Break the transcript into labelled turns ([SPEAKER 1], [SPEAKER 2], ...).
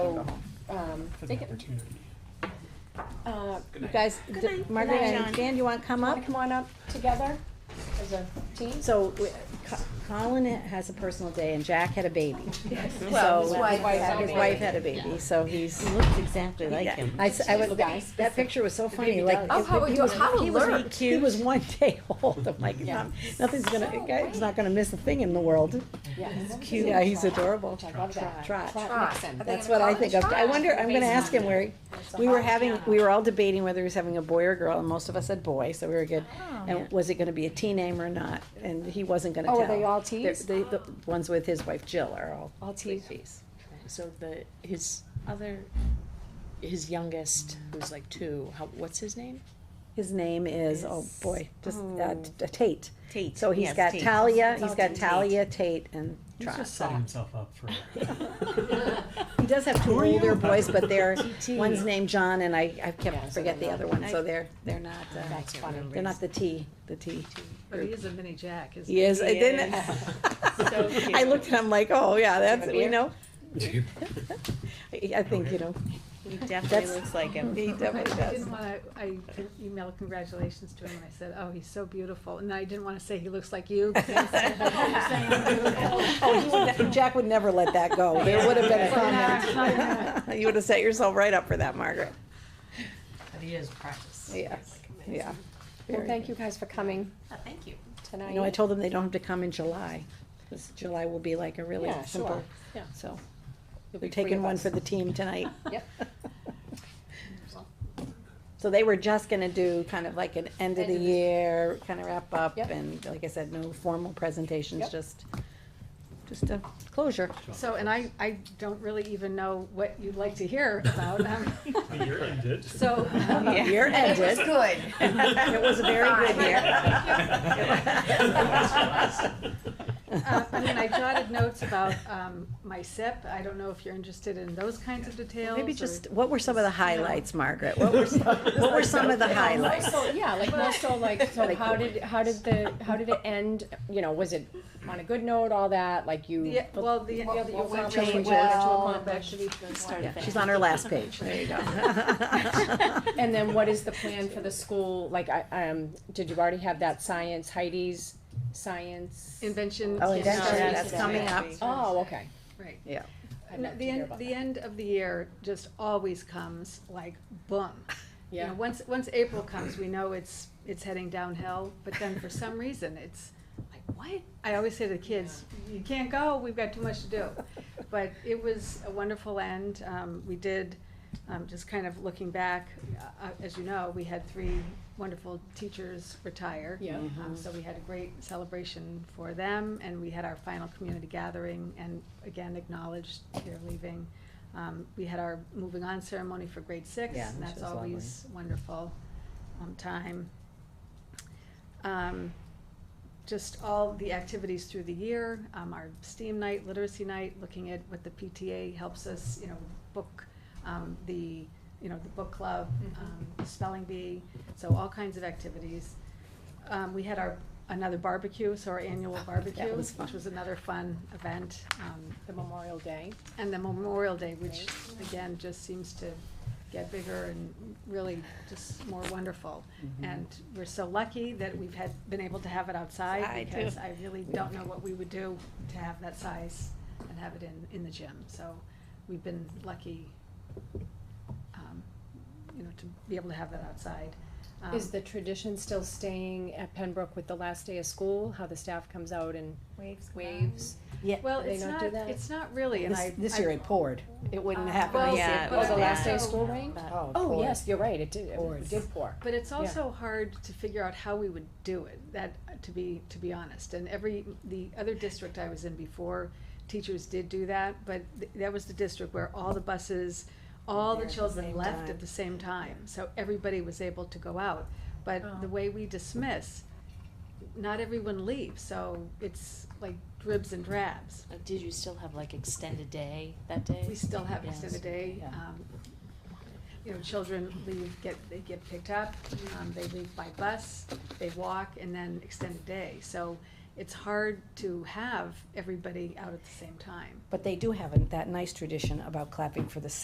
[SPEAKER 1] for the
[SPEAKER 2] Oh, um, Take it.
[SPEAKER 1] opportunity.
[SPEAKER 2] Uh,
[SPEAKER 1] Good
[SPEAKER 2] You
[SPEAKER 1] night.
[SPEAKER 2] guys,
[SPEAKER 3] Good
[SPEAKER 2] d-
[SPEAKER 3] night.
[SPEAKER 2] Margaret
[SPEAKER 3] Good night,
[SPEAKER 2] and
[SPEAKER 3] John.
[SPEAKER 2] Dan, you want to come
[SPEAKER 3] Wanna
[SPEAKER 2] up? Come on up together as a team. So we- Co- Colin has a personal day and Jack had a baby.
[SPEAKER 3] Well,
[SPEAKER 2] So- uh,
[SPEAKER 3] his wife had a
[SPEAKER 2] His
[SPEAKER 3] baby.
[SPEAKER 2] wife had a baby, so he's.
[SPEAKER 4] Looks exactly like
[SPEAKER 2] Yeah.
[SPEAKER 4] him.
[SPEAKER 2] I, s- I was,
[SPEAKER 3] Guys.
[SPEAKER 2] that picture was so funny, like.
[SPEAKER 3] Oh,
[SPEAKER 2] it-
[SPEAKER 3] how
[SPEAKER 2] he
[SPEAKER 3] ado-
[SPEAKER 2] was-
[SPEAKER 3] how
[SPEAKER 2] he was-
[SPEAKER 3] alert.
[SPEAKER 2] He was one day old, I'm like,
[SPEAKER 3] Yeah.
[SPEAKER 2] "Nom- nothing's gonna,
[SPEAKER 3] So
[SPEAKER 2] he's not gonna miss a thing in the world.
[SPEAKER 3] Yes.
[SPEAKER 2] Cute. Yeah, he's adorable.
[SPEAKER 3] I love that.
[SPEAKER 2] Trot.
[SPEAKER 3] Trot. Are they
[SPEAKER 2] That's
[SPEAKER 3] gonna
[SPEAKER 2] what
[SPEAKER 3] call
[SPEAKER 2] I
[SPEAKER 3] it
[SPEAKER 2] think of. I
[SPEAKER 3] Trot?
[SPEAKER 2] wonder, I'm gonna ask him where, he- we were having, we were all debating whether he was having a boy or girl, and most of us said boy, so we were good. And was it gonna be a T name or not? And he wasn't gonna tell.
[SPEAKER 3] Oh, are they all
[SPEAKER 2] They're-
[SPEAKER 3] Ts?
[SPEAKER 2] they- The, ones with his wife Jill are all.
[SPEAKER 3] All Ts.
[SPEAKER 2] Ts.
[SPEAKER 5] So the, his other, his youngest, who's like two, how, what's his name?
[SPEAKER 2] His name is, oh
[SPEAKER 4] Is-
[SPEAKER 2] boy, just, uh,
[SPEAKER 3] Oh.
[SPEAKER 2] t- Tate.
[SPEAKER 4] Tate.
[SPEAKER 2] So he's
[SPEAKER 4] yes,
[SPEAKER 2] got
[SPEAKER 4] Tate.
[SPEAKER 2] Talia,
[SPEAKER 3] It's
[SPEAKER 2] he's
[SPEAKER 3] all
[SPEAKER 2] got
[SPEAKER 3] Tate.
[SPEAKER 2] Talia, Tate, and
[SPEAKER 1] He's just
[SPEAKER 2] Trot.
[SPEAKER 1] setting himself up for.
[SPEAKER 2] He does have two
[SPEAKER 1] Who are you?
[SPEAKER 2] older boys, but they're,
[SPEAKER 5] TT.
[SPEAKER 2] one's named John, and I, I
[SPEAKER 3] Yeah,
[SPEAKER 2] kept
[SPEAKER 3] so
[SPEAKER 2] forget
[SPEAKER 3] they're
[SPEAKER 2] the
[SPEAKER 3] not-
[SPEAKER 2] other one, so
[SPEAKER 4] I-
[SPEAKER 2] they're, they're not, uh,
[SPEAKER 3] That's funny.
[SPEAKER 2] they're not the T, the T.
[SPEAKER 6] But he is a mini Jack, isn't he?
[SPEAKER 2] He is, I
[SPEAKER 4] He
[SPEAKER 2] didn't.
[SPEAKER 4] So
[SPEAKER 2] I looked at him like, oh, yeah, that's,
[SPEAKER 3] a
[SPEAKER 2] you
[SPEAKER 3] beer?
[SPEAKER 2] know. I I think, you know,
[SPEAKER 4] He definitely
[SPEAKER 2] That's-
[SPEAKER 4] looks like him.
[SPEAKER 2] he definitely
[SPEAKER 6] I
[SPEAKER 2] does.
[SPEAKER 6] didn't wanna, I emailed congratulations to him and I said, oh, he's so beautiful, and I didn't wanna say he looks like you. 'cause I said, "Oh, you're saying I'm beautiful."
[SPEAKER 2] Oh, he would ne- Jack would never let that go. There would have been a
[SPEAKER 6] Yeah.
[SPEAKER 2] comment. You would have set yourself right up for that, Margaret.
[SPEAKER 7] But he is practice.
[SPEAKER 2] Yeah, yeah.
[SPEAKER 3] Well,
[SPEAKER 2] Very
[SPEAKER 3] thank you
[SPEAKER 2] good. Uh,
[SPEAKER 3] guys for coming
[SPEAKER 7] Thank you.
[SPEAKER 3] tonight.
[SPEAKER 2] You know, I told them they don't have to come in July, 'cause July will be like a really
[SPEAKER 3] Yeah, sure.
[SPEAKER 2] simple,
[SPEAKER 3] Yeah.
[SPEAKER 2] so.
[SPEAKER 3] You'll be
[SPEAKER 2] We're
[SPEAKER 3] free
[SPEAKER 2] taking
[SPEAKER 3] of
[SPEAKER 2] one
[SPEAKER 3] us.
[SPEAKER 2] for the team tonight.
[SPEAKER 3] Yep.
[SPEAKER 2] So they were just gonna do kind of like an end of the
[SPEAKER 3] End of the-
[SPEAKER 2] year, kind of wrap up,
[SPEAKER 3] Yep.
[SPEAKER 2] and like I said, no formal presentations,
[SPEAKER 3] Yep.
[SPEAKER 2] just, just a closure.
[SPEAKER 6] So, and I, I don't really even know what you'd like to hear about, um,
[SPEAKER 1] The year ended.
[SPEAKER 6] so. um,
[SPEAKER 4] Yeah.
[SPEAKER 2] Year
[SPEAKER 7] It was
[SPEAKER 2] ended.
[SPEAKER 7] good.
[SPEAKER 2] It was a very good
[SPEAKER 7] year.
[SPEAKER 6] Uh, I mean, I jotted notes about, um, my SIP, I don't know if you're interested in those kinds of details.
[SPEAKER 2] Maybe
[SPEAKER 6] or-
[SPEAKER 2] just, what were some of the highlights, Margaret? What were, what
[SPEAKER 1] What
[SPEAKER 2] were some of the highlights?
[SPEAKER 3] So, yeah, like more so like, so how did, how did the, how did it end? You know, was it on a good note, all that, like you?
[SPEAKER 6] Yeah, well, the, the,
[SPEAKER 3] What- what
[SPEAKER 6] what
[SPEAKER 3] changes,
[SPEAKER 6] really
[SPEAKER 3] what you
[SPEAKER 6] well,
[SPEAKER 3] accomplished.
[SPEAKER 6] actually,
[SPEAKER 4] Start
[SPEAKER 2] Yeah,
[SPEAKER 4] to
[SPEAKER 2] She's
[SPEAKER 4] finish.
[SPEAKER 2] on her last page, there you go.
[SPEAKER 3] And then what is the plan for the school? Like, I, um, did you already have that science, Heidi's science?
[SPEAKER 6] invention.
[SPEAKER 2] Oh,
[SPEAKER 6] yeah,
[SPEAKER 2] invention,
[SPEAKER 6] yeah,
[SPEAKER 2] that's
[SPEAKER 6] yeah.
[SPEAKER 2] coming up.
[SPEAKER 3] Oh, okay.
[SPEAKER 6] Right.
[SPEAKER 2] Yeah.
[SPEAKER 3] I'd
[SPEAKER 6] No,
[SPEAKER 3] love to
[SPEAKER 6] The
[SPEAKER 3] hear
[SPEAKER 6] end,
[SPEAKER 3] about
[SPEAKER 6] the
[SPEAKER 3] that.
[SPEAKER 6] end of the year just always comes like boom. You
[SPEAKER 3] Yeah.
[SPEAKER 6] know, Once, once April comes, we know it's, it's heading downhill, but then for some reason, it's like, what? I always say to the kids, you can't go, we've got too much to do. But it was a wonderful end. Um, we did, um, just kind of looking back, uh, as you know, we had three wonderful teachers retire.
[SPEAKER 3] Yeah.
[SPEAKER 4] Mm-hmm.
[SPEAKER 6] Um, so we had a great celebration for them, and we had our final community gathering, and again acknowledged their leaving. Um, we had our moving on ceremony for grade six,
[SPEAKER 4] Yeah,
[SPEAKER 6] and
[SPEAKER 4] which
[SPEAKER 6] that's
[SPEAKER 4] was lovely.
[SPEAKER 6] always wonderful, um, time. Um, just all the activities through the year, um, our STEAM night, literacy night, looking at what the PTA helps us, you know, book, um, the, you know, the book club, um, spelling bee, so all kinds of activities. Um, we had our, another barbecue, so our annual barbecue,
[SPEAKER 2] was
[SPEAKER 6] which
[SPEAKER 2] fun.
[SPEAKER 6] was another fun event, um,
[SPEAKER 3] The Memorial Day.
[SPEAKER 6] and the Memorial Day, which again, just seems to get bigger and really just more wonderful.
[SPEAKER 2] Mm-hmm.
[SPEAKER 6] And we're so lucky that we've had, been able to have it outside
[SPEAKER 4] Outside, too.
[SPEAKER 6] because I really don't know what we would do to have that size and have it in, in the gym. So we've been lucky, um, you know, to be able to have that outside. Um,
[SPEAKER 3] Is the tradition still staying at Pembroke with the last day of school, how the staff comes out and waves?
[SPEAKER 6] Well,
[SPEAKER 3] do they
[SPEAKER 6] it's
[SPEAKER 3] not
[SPEAKER 6] not,
[SPEAKER 3] do that?
[SPEAKER 6] it's not really, and I.
[SPEAKER 2] This, this
[SPEAKER 6] I- uh,
[SPEAKER 2] year it poured. It wouldn't happen.
[SPEAKER 6] Well,
[SPEAKER 4] yeah,
[SPEAKER 6] but
[SPEAKER 3] Oh, the
[SPEAKER 6] I
[SPEAKER 3] last day of
[SPEAKER 6] also-
[SPEAKER 3] school rained?
[SPEAKER 2] Oh, it
[SPEAKER 3] Oh,
[SPEAKER 2] poured.
[SPEAKER 3] yes, you're right, it did, it
[SPEAKER 2] Poured.
[SPEAKER 3] did pour.
[SPEAKER 6] But it's also hard to figure out how we would do it, that, to be, to be honest. And every, the other district I was in before, teachers did do that, but th- that was the district where all the buses, all the
[SPEAKER 4] There at the
[SPEAKER 6] children
[SPEAKER 4] same
[SPEAKER 6] left
[SPEAKER 4] time.
[SPEAKER 6] at the same time. So everybody was able to go out. But the
[SPEAKER 3] Oh.
[SPEAKER 6] way we dismiss, not everyone leaves, so it's like dribs and drabs.
[SPEAKER 4] Uh, Did you still have like extended day that day?
[SPEAKER 6] We still have
[SPEAKER 4] Yes.
[SPEAKER 6] most of the day.
[SPEAKER 4] Yeah.
[SPEAKER 6] um, You know, children leave, get, they get picked up, um, they leave by bus, they walk, and then extended day. So it's hard to have everybody out at the same time.
[SPEAKER 2] But they do have a- that nice tradition about clapping for the